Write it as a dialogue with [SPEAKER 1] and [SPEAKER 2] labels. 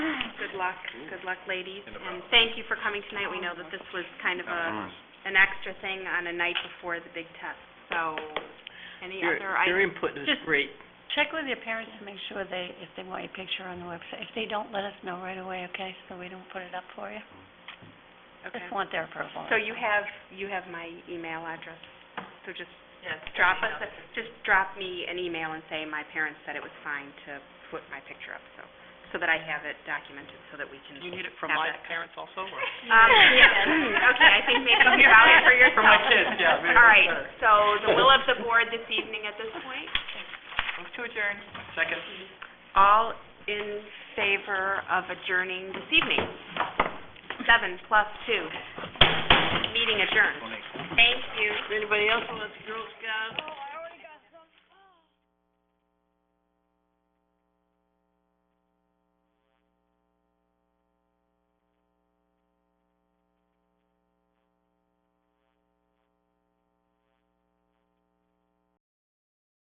[SPEAKER 1] luck, good luck, ladies.
[SPEAKER 2] In the
[SPEAKER 1] And
[SPEAKER 2] process.
[SPEAKER 1] thank you for coming tonight. We know that this was kind of a, an extra thing on a night before the big test, so any
[SPEAKER 3] Your-
[SPEAKER 1] other items?
[SPEAKER 3] Your input is
[SPEAKER 4] Just-
[SPEAKER 3] great.
[SPEAKER 4] Check with your parents to make sure they, if they want your picture on the website. If they don't, let us know right away, okay, so we don't put it up for you.
[SPEAKER 1] Okay.
[SPEAKER 4] Just want their approval.
[SPEAKER 1] So you have, you have my email address, so just drop us, a- just drop me an email and say my parents said it was fine to put my picture up, so, so that I have it documented, so that we can
[SPEAKER 5] Do you need it from
[SPEAKER 1] have
[SPEAKER 5] my
[SPEAKER 1] that.
[SPEAKER 5] parents also, or?
[SPEAKER 1] Um, yeah, okay, I think maybe you found it for yourself.
[SPEAKER 5] For my kids, yeah, maybe
[SPEAKER 1] All
[SPEAKER 5] that's
[SPEAKER 1] right,
[SPEAKER 5] better.
[SPEAKER 1] so the will of the board this evening at this point?
[SPEAKER 5] Move to adjourn. Second.
[SPEAKER 1] All in favor of adjourning this evening? Seven plus two. Meeting adjourned. Thank you.
[SPEAKER 3] Anybody else want to Girl Scout?